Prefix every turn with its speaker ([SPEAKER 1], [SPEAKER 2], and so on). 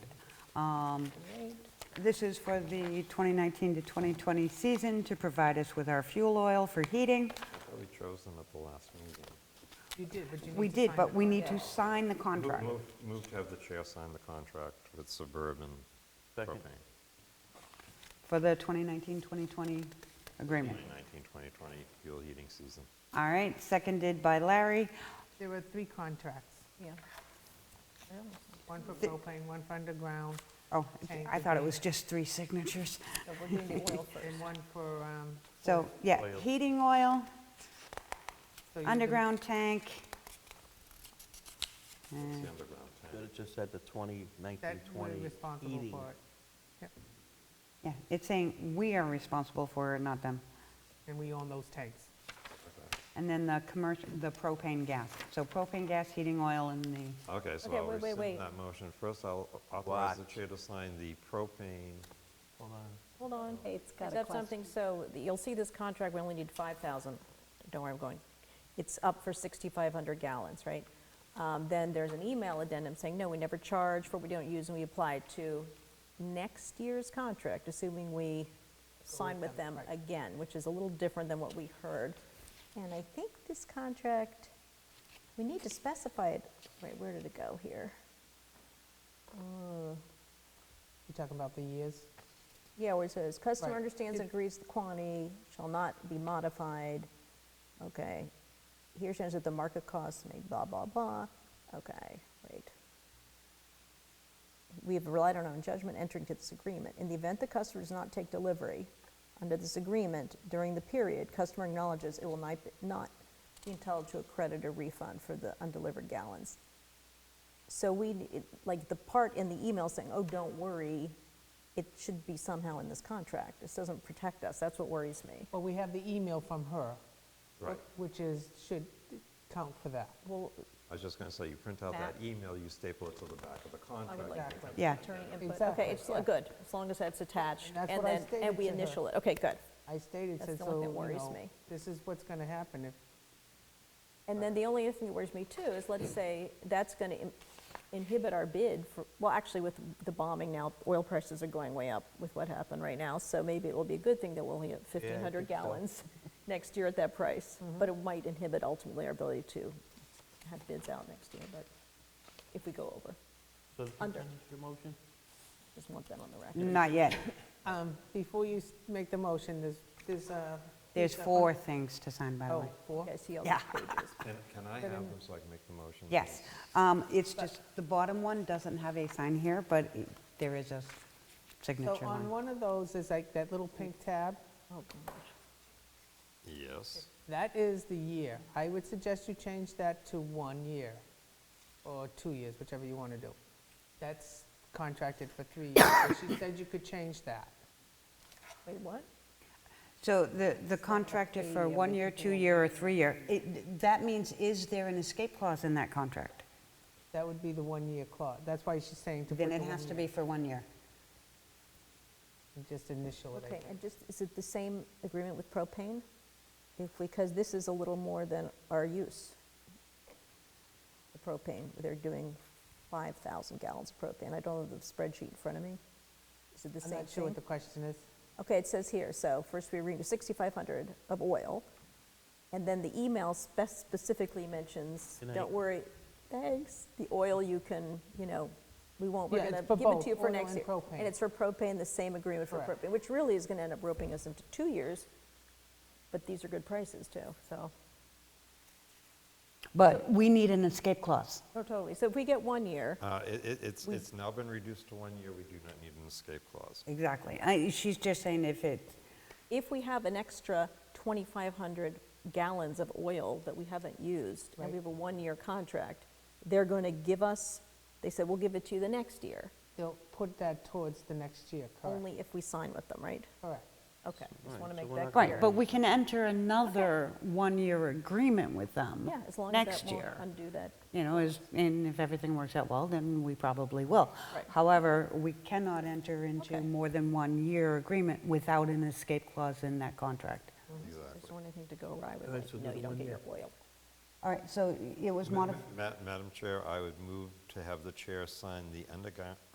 [SPEAKER 1] Um, This is for the 2019 to 2020 season to provide us with our fuel oil for heating.
[SPEAKER 2] We chose them at the last meeting.
[SPEAKER 3] You did, but you
[SPEAKER 1] We
[SPEAKER 3] need to
[SPEAKER 1] did,
[SPEAKER 3] sign
[SPEAKER 1] but
[SPEAKER 3] it.
[SPEAKER 1] we need to sign the contract.
[SPEAKER 2] Move, move to have the chair sign the contract with Suburban Propane.
[SPEAKER 4] Second.
[SPEAKER 1] For the 2019-2020 agreement.
[SPEAKER 2] 2019-2020 fuel heating season.
[SPEAKER 1] All right, seconded by Larry.
[SPEAKER 3] There were three contracts,
[SPEAKER 5] Yeah.
[SPEAKER 3] one for propane, one for underground,
[SPEAKER 1] Oh,
[SPEAKER 3] Okay,
[SPEAKER 1] I thought it was just three signatures.
[SPEAKER 5] So we're doing the oil first.
[SPEAKER 3] and one for, um,
[SPEAKER 1] So, yeah,
[SPEAKER 4] Oil.
[SPEAKER 1] heating oil,
[SPEAKER 3] so you can-
[SPEAKER 1] underground tank.
[SPEAKER 2] It's
[SPEAKER 1] and-
[SPEAKER 2] the underground
[SPEAKER 4] Should
[SPEAKER 2] tank.
[SPEAKER 4] have just said the 20, 19,
[SPEAKER 3] That we're
[SPEAKER 4] 20
[SPEAKER 3] responsible
[SPEAKER 4] heating.
[SPEAKER 3] for it,
[SPEAKER 1] Yeah, it's saying we are responsible for it, not them.
[SPEAKER 3] and we own those tanks.
[SPEAKER 1] And then the commercial, the propane gas. So propane gas, heating oil, and the,
[SPEAKER 2] Okay, so
[SPEAKER 5] Okay,
[SPEAKER 2] I'll
[SPEAKER 5] wait, wait, wait.
[SPEAKER 2] rescind that motion. First, I'll authorize the
[SPEAKER 4] What?
[SPEAKER 2] chair to sign the propane.
[SPEAKER 4] Hold on.
[SPEAKER 5] Hold on.
[SPEAKER 6] Kate's got
[SPEAKER 5] Is
[SPEAKER 6] a
[SPEAKER 5] that
[SPEAKER 6] question.
[SPEAKER 5] something, so th- you'll see this contract, we only need 5,000. Don't worry, I'm going. It's up for 6,500 gallons, right? Um, Then there's an email addendum saying, no, we never charge for what we don't use, and we apply to next year's contract, assuming we sign with them again, which is a little different than what we heard. And I think this contract, we need to specify it, wait, where did it go here?
[SPEAKER 3] You talking about the years?
[SPEAKER 5] Yeah, where it says, customer
[SPEAKER 3] Right.
[SPEAKER 5] understands and agrees the quantity shall not be modified, okay. Here stands that the market cost may blah, blah, blah, okay, wait. We have relied on our own judgment entering into this agreement. In the event the customer does not take delivery under this agreement during the period, customer acknowledges it will not, not be entitled to a credit or refund for the undelivered gallons. So we, it- like, the part in the email saying, oh, don't worry, it should be somehow in this contract. This doesn't protect us, that's what worries me.
[SPEAKER 3] Well, we have the email from her,
[SPEAKER 2] Right.
[SPEAKER 3] which is, should count for that.
[SPEAKER 5] Well,
[SPEAKER 2] I was just going to say, you print out that
[SPEAKER 5] That-
[SPEAKER 2] email, you staple it to the back of the
[SPEAKER 5] I would
[SPEAKER 2] contract.
[SPEAKER 5] like
[SPEAKER 3] Exactly.
[SPEAKER 1] yeah.
[SPEAKER 5] attorney input.
[SPEAKER 3] Exactly,
[SPEAKER 5] Okay, it's
[SPEAKER 3] yeah.
[SPEAKER 5] good, as long as that's attached.
[SPEAKER 3] And that's
[SPEAKER 5] and
[SPEAKER 3] what I
[SPEAKER 5] then
[SPEAKER 3] stated
[SPEAKER 5] And we
[SPEAKER 3] to her.
[SPEAKER 5] initial it, okay, good.
[SPEAKER 3] I stated,
[SPEAKER 5] That's
[SPEAKER 3] said,
[SPEAKER 5] the one
[SPEAKER 3] so,
[SPEAKER 5] that
[SPEAKER 3] you
[SPEAKER 5] worries
[SPEAKER 3] know,
[SPEAKER 5] me.
[SPEAKER 3] this is what's going to happen if
[SPEAKER 5] And then the only other thing that worries me too is, let's say, that's going to inhibit our bid for, well, actually with the bombing now, oil prices are going way up with what happened right now, so maybe it will be a good thing that we'll only have 1,500
[SPEAKER 4] think so. Mm-hmm.
[SPEAKER 5] gallons next year at that price, but it might inhibit ultimately our ability to have bids out next year, but if we go over,
[SPEAKER 4] So did you
[SPEAKER 5] Under.
[SPEAKER 4] finish your motion?
[SPEAKER 5] just want that on the record.
[SPEAKER 1] Not yet.
[SPEAKER 3] Um, Before you s- make the motion, there's, there's uh
[SPEAKER 1] There's
[SPEAKER 3] piece of-
[SPEAKER 1] four things to sign, by the
[SPEAKER 3] Oh,
[SPEAKER 1] way.
[SPEAKER 3] four?
[SPEAKER 5] Okay, I see all these
[SPEAKER 1] Yeah.
[SPEAKER 5] pages.
[SPEAKER 2] Can can I have them so I can make the motion?
[SPEAKER 1] Yes. Um, It's just, the bottom one doesn't have a sign here, but it- there is a
[SPEAKER 3] So
[SPEAKER 1] signature
[SPEAKER 3] on
[SPEAKER 1] line.
[SPEAKER 3] one of those is like that little pink tab,
[SPEAKER 5] Oh, gosh.
[SPEAKER 2] Yes.
[SPEAKER 3] that is the year. I would suggest you change that to one year, or two years, whichever you want to do. That's contracted for three years, so she said you could change that.
[SPEAKER 5] Wait, what?
[SPEAKER 1] So the the contract is uh, for one year, two year, or three year. It- That means, is there an escape clause in that contract?
[SPEAKER 3] That would be the one-year clause, that's why she's saying to put
[SPEAKER 1] Then
[SPEAKER 3] the
[SPEAKER 1] it
[SPEAKER 3] one
[SPEAKER 1] has to
[SPEAKER 3] year.
[SPEAKER 1] be for one year.
[SPEAKER 3] Just initial it, I
[SPEAKER 5] Okay,
[SPEAKER 3] think.
[SPEAKER 5] and just, is it the same agreement with propane? If, because this is a little more than our use. The propane, they're doing 5,000 gallons of propane. I don't have the spreadsheet in front of me. Is it the
[SPEAKER 3] I'm
[SPEAKER 5] same
[SPEAKER 3] not sure what
[SPEAKER 5] thing?
[SPEAKER 3] the question is.
[SPEAKER 5] Okay, it says here, so first we renew 6,500 of oil, and then the email spec- specifically mentions,
[SPEAKER 4] Good night.
[SPEAKER 5] don't worry, thanks, the oil you can, you know, we won't, we're
[SPEAKER 3] Yeah,
[SPEAKER 5] going to
[SPEAKER 3] it's for
[SPEAKER 5] give it
[SPEAKER 3] both
[SPEAKER 5] to you for
[SPEAKER 3] oil
[SPEAKER 5] next
[SPEAKER 3] and
[SPEAKER 5] year.
[SPEAKER 3] propane.
[SPEAKER 5] And it's for propane, the same agreement for
[SPEAKER 3] Correct.
[SPEAKER 5] propane, which really is going to end up roping us into two years, but these are good prices too, so.
[SPEAKER 1] But we need an escape clause.
[SPEAKER 5] No, totally. So if we get one year,
[SPEAKER 2] Uh, it- it- It's, it's now been reduced to one year. We do not need an escape clause.
[SPEAKER 1] Exactly. I- She's just saying if it,
[SPEAKER 5] if we have an extra 2,500 gallons of oil that we haven't used, and
[SPEAKER 3] Right.
[SPEAKER 5] we have a one-year contract, they're going to give us, they said, we'll give it to you the next year,
[SPEAKER 3] They'll put that towards the next year, correct?
[SPEAKER 5] only if we sign with them, right?
[SPEAKER 3] Correct.
[SPEAKER 5] Okay, just want to
[SPEAKER 4] so
[SPEAKER 5] make
[SPEAKER 4] we're
[SPEAKER 5] that
[SPEAKER 4] not
[SPEAKER 5] clear.
[SPEAKER 1] right, but we can enter another one-year agreement with them
[SPEAKER 5] Yeah, as long as
[SPEAKER 1] next
[SPEAKER 5] that won't
[SPEAKER 1] year.
[SPEAKER 5] undo that.
[SPEAKER 1] You know, is, and if everything works out well, then we probably will.
[SPEAKER 5] Right.
[SPEAKER 1] However, we cannot enter into
[SPEAKER 5] Okay.
[SPEAKER 1] more than one-year agreement without an escape clause in that contract.
[SPEAKER 5] I
[SPEAKER 2] Exactly.
[SPEAKER 5] just don't want anything to go awry with,
[SPEAKER 4] All right, so
[SPEAKER 5] like, no,
[SPEAKER 4] do the
[SPEAKER 5] you don't
[SPEAKER 4] one
[SPEAKER 5] get your
[SPEAKER 4] year.
[SPEAKER 5] oil.
[SPEAKER 1] All right, so it was modified.
[SPEAKER 2] Ma- Madam Chair, I would move to have the chair sign the underga-